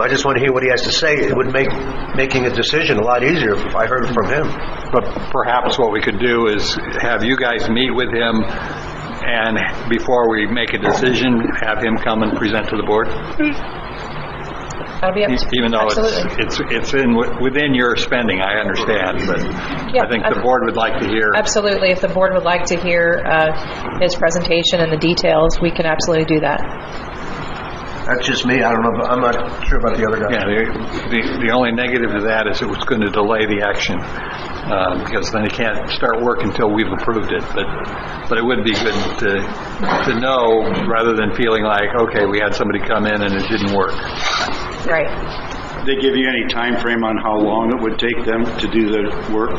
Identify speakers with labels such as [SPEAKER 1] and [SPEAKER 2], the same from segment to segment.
[SPEAKER 1] I just want to hear what he has to say. It would make making a decision a lot easier if I heard it from him.
[SPEAKER 2] But perhaps what we could do is have you guys meet with him, and before we make a decision, have him come and present to the board,
[SPEAKER 3] That'll be up to...
[SPEAKER 2] E- even though
[SPEAKER 3] Absolutely.
[SPEAKER 2] it's, it's it's in, within your spending, I understand, but I
[SPEAKER 3] Yeah,
[SPEAKER 2] think the
[SPEAKER 3] ab-
[SPEAKER 2] board would like to hear.
[SPEAKER 3] Absolutely. If the board would like to hear uh, his presentation and the details, we can absolutely do that.
[SPEAKER 1] That's just me. I don't know. I'm not sure about the other guy.
[SPEAKER 2] Yeah, the- the, the only negative to that is it was going to delay the action, uh, because then it can't start work until we've approved it. But, but it would be good to, to know, rather than feeling like, okay, we had somebody come in and it didn't work.
[SPEAKER 3] Right.
[SPEAKER 4] They give you any time frame on how long it would take them to do the work?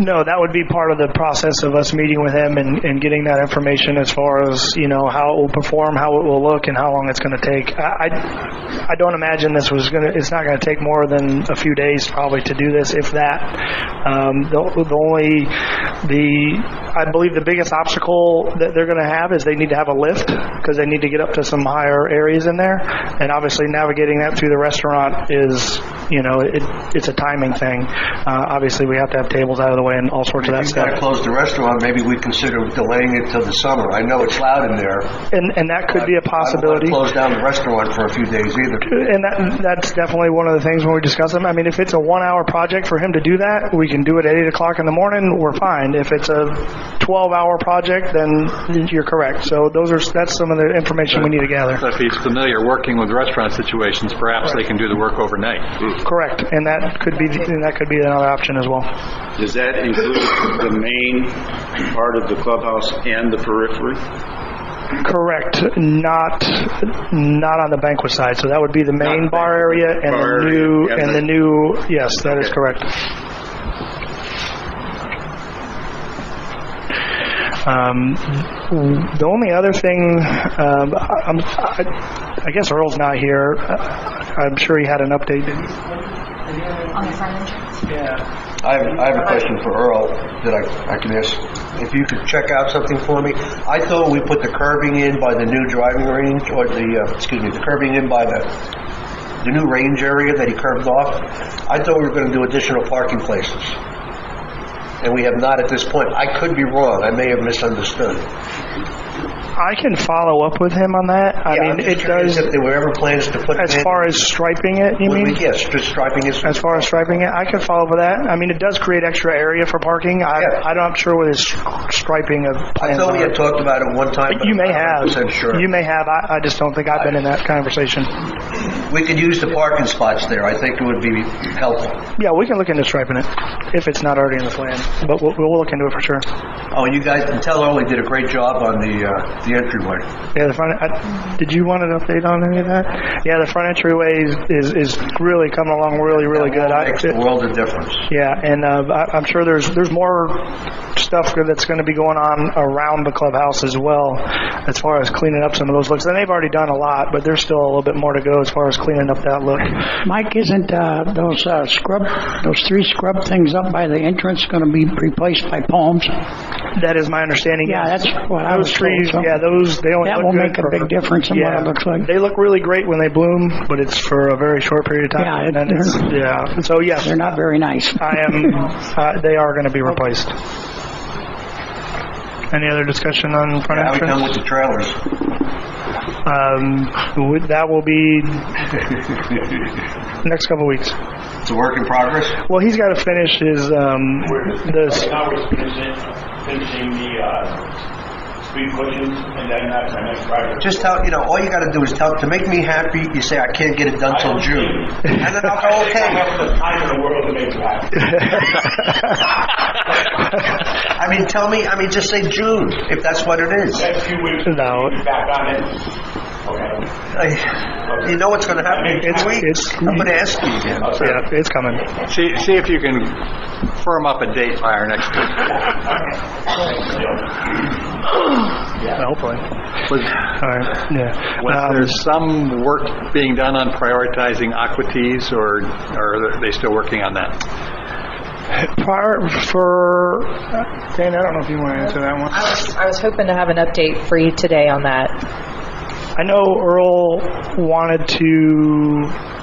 [SPEAKER 5] No, that would be part of the process of us meeting with him and, and getting that information as far as, you know, how it will perform, how it will look, and how long it's going to take. I, I- I don't imagine this was going to, it's not going to take more than a few days probably to do this, if that. Um, the, the only, the, I believe the biggest obstacle that they're going to have is they need to have a lift because they need to get up to some higher areas in there. And obviously navigating that through the restaurant is, you know, it, it's a timing thing. Uh, obviously we have to have tables out of the way and all sorts of that
[SPEAKER 1] If you got to
[SPEAKER 5] stuff.
[SPEAKER 1] close the restaurant, maybe we consider delaying it till the summer. I know it's loud in there.
[SPEAKER 5] And, and that could be a
[SPEAKER 1] I
[SPEAKER 5] possibility.
[SPEAKER 1] don't want to close down the restaurant for a few days either.
[SPEAKER 5] and that, that's definitely one of the things when we discuss them. I mean, if it's a one-hour project for him to do that, we can do it at eight o'clock in the morning. We're fine. If it's a twelve-hour project, then you're correct. So those are that's some of the information we need to gather.
[SPEAKER 2] So if he's familiar working with restaurant situations, perhaps they can do the work overnight.
[SPEAKER 5] Correct, and that could be and that could be another option as well.
[SPEAKER 4] Does that include the main part of the clubhouse and the periphery?
[SPEAKER 5] Correct, not not on the banquet side. So that would be the main
[SPEAKER 4] Not
[SPEAKER 5] bar
[SPEAKER 4] banquet,
[SPEAKER 5] area and
[SPEAKER 4] bar
[SPEAKER 5] the
[SPEAKER 4] area,
[SPEAKER 5] new
[SPEAKER 4] yeah,
[SPEAKER 5] and
[SPEAKER 4] the-
[SPEAKER 5] the new. Yes, that is
[SPEAKER 4] Okay.
[SPEAKER 5] correct. Um, the only other thing, um, I, I'm, I, I guess Earl's not here. I- I'm sure he had an update.
[SPEAKER 1] I have, I have a question for Earl that I, I can ask, if you could check out something for me. I thought we put the curbing in by the new driving range, or the, uh, excuse me, the curbing in by the, the new range area that he curved off. I thought we were gonna do additional parking places. And we have not at this point. I could be wrong. I may have misunderstood.
[SPEAKER 5] I can follow up with him on that. I
[SPEAKER 1] Yeah, I'm
[SPEAKER 5] mean,
[SPEAKER 1] just
[SPEAKER 5] it
[SPEAKER 1] curious
[SPEAKER 5] does.
[SPEAKER 1] If there were ever plans to put.
[SPEAKER 5] As
[SPEAKER 1] in-
[SPEAKER 5] far as striping it, you
[SPEAKER 1] Would
[SPEAKER 5] mean?
[SPEAKER 1] we- Yes, just striping is.
[SPEAKER 5] As far as striping it, I could follow with that. I mean, it does create extra area for parking. I,
[SPEAKER 1] Yeah.
[SPEAKER 5] I don't, I'm sure what his striping of
[SPEAKER 1] I
[SPEAKER 5] plans
[SPEAKER 1] thought we
[SPEAKER 5] are.
[SPEAKER 1] had talked about it one time. but
[SPEAKER 5] You may
[SPEAKER 1] I'm not
[SPEAKER 5] have.
[SPEAKER 1] 100% sure.
[SPEAKER 5] You may have. I, I just don't think I've been in that conversation.
[SPEAKER 1] We could use the parking spots there. I think it would be helpful.
[SPEAKER 5] Yeah, we can look into striping it if it's not already in the plan, but we'll, we'll look into it for sure.
[SPEAKER 1] Oh, you guys, and tell Earl he did a great job on the, uh, the entryway.
[SPEAKER 5] Yeah, the front, I, did you want an update on any of that? Yeah, the front entryway is, is, is really coming along really, really good. I-
[SPEAKER 1] Makes the world of difference.
[SPEAKER 5] Yeah, and uh, I, I'm sure there's there's more stuff that's going to be going on around the clubhouse as well, as far as cleaning up some of those looks. And they've already done a lot, but there's still a little bit more to go as far as cleaning up that look.
[SPEAKER 6] Mike, isn't uh, those uh, scrub, those three scrub things up by the entrance going to be replaced by palms?
[SPEAKER 5] That is my understanding.
[SPEAKER 6] Yeah,
[SPEAKER 5] yes.
[SPEAKER 6] that's what I
[SPEAKER 5] those
[SPEAKER 6] was told.
[SPEAKER 5] trees.
[SPEAKER 6] so-
[SPEAKER 5] Yeah, those they only
[SPEAKER 6] That
[SPEAKER 5] look
[SPEAKER 6] will
[SPEAKER 5] good
[SPEAKER 6] make a
[SPEAKER 5] for-
[SPEAKER 6] big difference in what
[SPEAKER 5] yeah,
[SPEAKER 6] it looks like.
[SPEAKER 5] They look really great when they bloom, but it's for a very short period of time.
[SPEAKER 6] Yeah,
[SPEAKER 5] and then
[SPEAKER 6] they're-
[SPEAKER 5] it's, yeah. So yes,
[SPEAKER 6] They're not very nice.
[SPEAKER 5] I am. uh, they are going to be replaced. Any other discussion on front
[SPEAKER 1] How we
[SPEAKER 5] entrance?
[SPEAKER 1] done with the trailers?
[SPEAKER 5] Um, would- that will be next couple weeks.
[SPEAKER 1] It's a work in progress?
[SPEAKER 5] Well, he's got to finish his um, this.
[SPEAKER 7] Now we're finishing, finishing the, uh, street cushions, and then that's our next project.
[SPEAKER 1] Just tell, you know, all you gotta do is tell, to make me happy, you say, "I can't get it done till June." And then I'll
[SPEAKER 7] I
[SPEAKER 1] go,
[SPEAKER 7] think I
[SPEAKER 1] okay.
[SPEAKER 7] have the time in the world to make it happen.
[SPEAKER 1] I mean, tell me, I mean, just say June, if that's what it is.
[SPEAKER 7] Next few weeks,
[SPEAKER 5] No.
[SPEAKER 7] we'll be back on it. Okay.
[SPEAKER 1] I- You know what's gonna happen in
[SPEAKER 5] It's-
[SPEAKER 1] two weeks?
[SPEAKER 5] it's-
[SPEAKER 1] I'm gonna ask you again.
[SPEAKER 5] Yeah, it's coming.
[SPEAKER 2] See, see if you can firm up a date by our next meeting.
[SPEAKER 5] Hopefully.
[SPEAKER 2] Was-
[SPEAKER 5] All right. Yeah.
[SPEAKER 2] was
[SPEAKER 5] Um,
[SPEAKER 2] there some work being done on prioritizing aqua teas, or or are they still working on that?
[SPEAKER 5] prior for Dan, I don't know if you want to answer that one.
[SPEAKER 3] I was hoping to have an update for you today on that.
[SPEAKER 5] I know Earl wanted to